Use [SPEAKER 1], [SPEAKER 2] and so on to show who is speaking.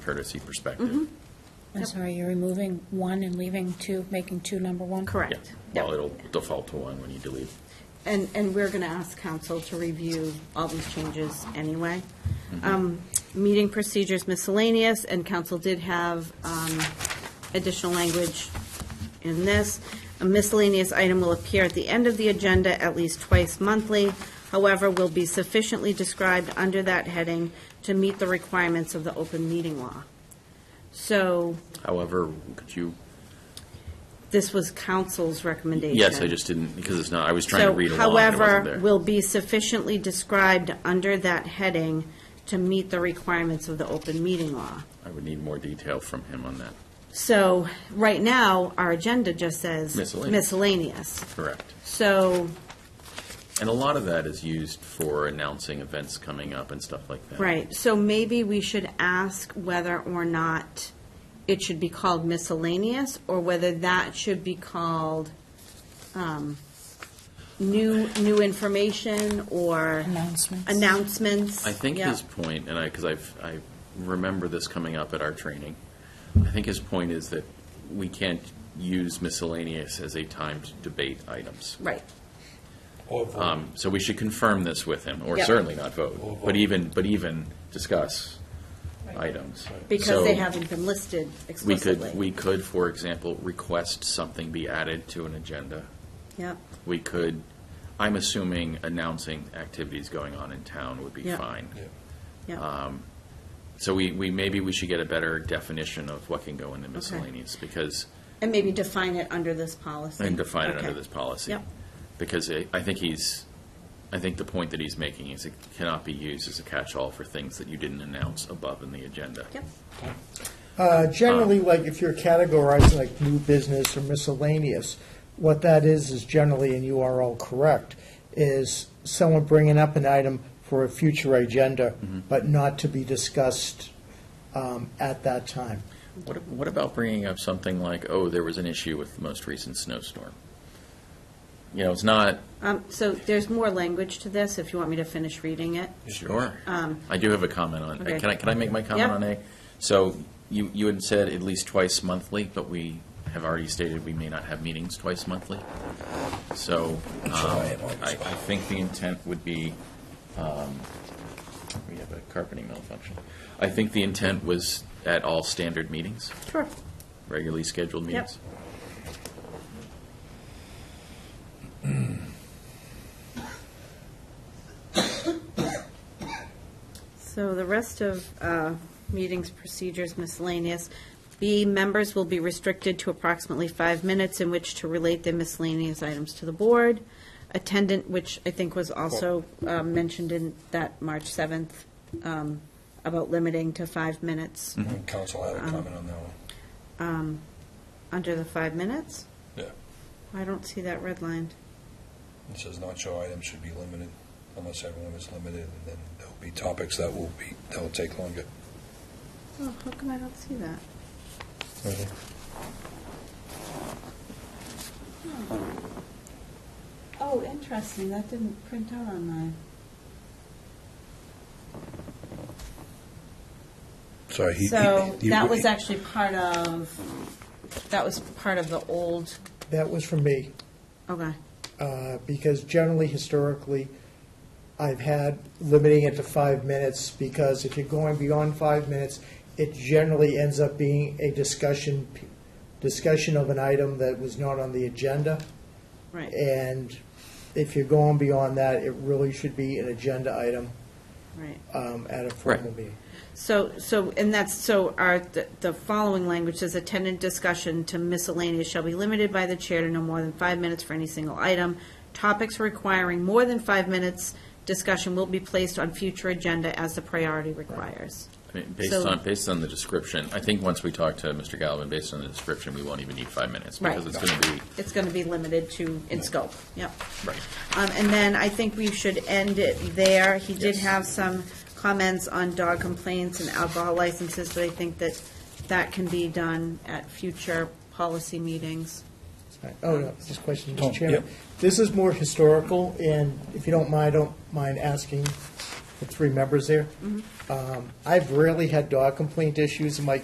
[SPEAKER 1] courtesy perspective.
[SPEAKER 2] Mm-hmm.
[SPEAKER 3] I'm sorry, you're removing one and leaving two, making two number one?
[SPEAKER 1] Yeah.
[SPEAKER 2] Correct.
[SPEAKER 1] Well,
[SPEAKER 2] Yep.
[SPEAKER 1] it'll default to one when you delete.
[SPEAKER 2] And, and we're going to ask council to review all these changes anyway.
[SPEAKER 1] Mm-hmm.
[SPEAKER 2] Um, Meeting procedures miscellaneous, and council did have um, additional language in this. A miscellaneous item will appear at the end of the agenda at least twice monthly, however, will be sufficiently described under that heading to meet the requirements of the open meeting law. So
[SPEAKER 1] However, could you,
[SPEAKER 2] this was council's recommendation.
[SPEAKER 1] yes, I just didn't, because it's not, I was trying to read along, and it
[SPEAKER 2] So,
[SPEAKER 1] wasn't
[SPEAKER 2] however,
[SPEAKER 1] there.
[SPEAKER 2] will be sufficiently described under that heading to meet the requirements of the open meeting law.
[SPEAKER 1] I would need more detail from him on that.
[SPEAKER 2] So, right now, our agenda just says
[SPEAKER 1] Miscellaneous.
[SPEAKER 2] miscellaneous.
[SPEAKER 1] Correct.
[SPEAKER 2] So,
[SPEAKER 1] And a lot of that is used for announcing events coming up and stuff like that.
[SPEAKER 2] right, so maybe we should ask whether or not it should be called miscellaneous, or whether that should be called um, new, new information or
[SPEAKER 3] Announcements.
[SPEAKER 2] announcements.
[SPEAKER 1] I think
[SPEAKER 2] Yeah.
[SPEAKER 1] his point, and I, because I've, I remember this coming up at our training, I think his point is that we can't use miscellaneous as a time to debate items.
[SPEAKER 2] Right.
[SPEAKER 1] Um, So we should confirm this with him, or
[SPEAKER 2] Yeah.
[SPEAKER 1] certainly not vote, but even, but even discuss items.
[SPEAKER 2] Because
[SPEAKER 1] So
[SPEAKER 2] they haven't been listed
[SPEAKER 1] We could,
[SPEAKER 2] explicitly.
[SPEAKER 1] we could, for example, request something be added to an agenda.
[SPEAKER 2] Yep,
[SPEAKER 1] We could, I'm assuming announcing activities going on in town would be
[SPEAKER 2] Yeah.
[SPEAKER 1] fine. uh,
[SPEAKER 2] yep.
[SPEAKER 1] So we, we, maybe we should get a better definition of what can go in the miscellaneous, because,
[SPEAKER 2] And maybe define it under this policy.
[SPEAKER 1] and define it under
[SPEAKER 2] Okay.
[SPEAKER 1] this policy.
[SPEAKER 2] Yep.
[SPEAKER 1] Because I I think he's, I think the point that he's making is it cannot be used as a catch-all for things that you didn't announce above in the agenda.
[SPEAKER 2] Yep,
[SPEAKER 4] Uh, Generally, like if you're categorizing like new business or miscellaneous, what that is, is generally, and you are all correct, is someone bringing up an item for a future agenda, but not to be discussed um, at that time.
[SPEAKER 1] What, what about bringing up something like, oh, there was an issue with the most recent snowstorm? You know, it's not,
[SPEAKER 2] um, so there's more language to this, if you want me to finish reading it.
[SPEAKER 1] sure. I do have a comment on,
[SPEAKER 2] Um, okay.
[SPEAKER 1] can I, can I make my comment
[SPEAKER 2] Yeah.
[SPEAKER 1] on A? So you, you had said at least twice monthly, but we have already stated we may not have meetings twice monthly. So um, I, I think the intent would be, um, we have a carpeting malfunction. I think the intent was at all standard meetings,
[SPEAKER 2] Sure.
[SPEAKER 1] regularly scheduled meetings.
[SPEAKER 2] So the rest of uh, meetings, procedures, miscellaneous. B, members will be restricted to approximately five minutes in which to relate their miscellaneous items to the board. Attendant, which I think was also um, mentioned in that March 7th, um, about limiting to five minutes,
[SPEAKER 5] Council had a
[SPEAKER 2] Um,
[SPEAKER 5] comment on that one.
[SPEAKER 2] under the five minutes.
[SPEAKER 5] Yeah.
[SPEAKER 2] I don't see that redlined.
[SPEAKER 5] It says not show items should be limited unless everyone is limited, and then there'll be topics that will be, that will take longer.
[SPEAKER 2] Oh, how come I don't see that? Oh, interesting, that didn't print out on mine.
[SPEAKER 5] Sorry, he.
[SPEAKER 2] So
[SPEAKER 5] he- he-
[SPEAKER 2] that was actually part of, that was part of the old,
[SPEAKER 4] That was from me,
[SPEAKER 2] okay,
[SPEAKER 4] uh, because generally, historically, I've had limiting it to five minutes, because if you're going beyond five minutes, it generally ends up being a discussion, discussion of an item that was not on the agenda.
[SPEAKER 2] right,
[SPEAKER 5] Eh.
[SPEAKER 4] And if you're going beyond that, it really should be an agenda item
[SPEAKER 2] right.
[SPEAKER 4] um, at a formal
[SPEAKER 1] Right.
[SPEAKER 4] meeting.
[SPEAKER 2] So, so, and that's, so our, the- the following language says attendant discussion to miscellaneous shall be limited by the chair to no more than five minutes for any single item. Topics requiring more than five minutes discussion will be placed on future agenda as the priority requires.
[SPEAKER 1] I mean, Based
[SPEAKER 2] So-
[SPEAKER 1] on, based on the description, I think once we talk to Mr. Galvin, based on the description, we won't even need five minutes. Because
[SPEAKER 2] Right.
[SPEAKER 1] it's going to be,
[SPEAKER 2] It's going to be limited to, in scope, yep.
[SPEAKER 1] right.
[SPEAKER 2] Um, And then I think we should end it there. He did
[SPEAKER 1] Yes.
[SPEAKER 2] have some comments on dog complaints and alcohol licenses, but I think that that can be done at future policy meetings.
[SPEAKER 4] Right. Oh, no, just a question,
[SPEAKER 5] Tom,
[SPEAKER 4] Mr. Chairman.
[SPEAKER 5] yep.
[SPEAKER 4] This is more historical, and if you don't mind, I don't mind asking the three members there. Um, I've rarely had dog complaint issues in my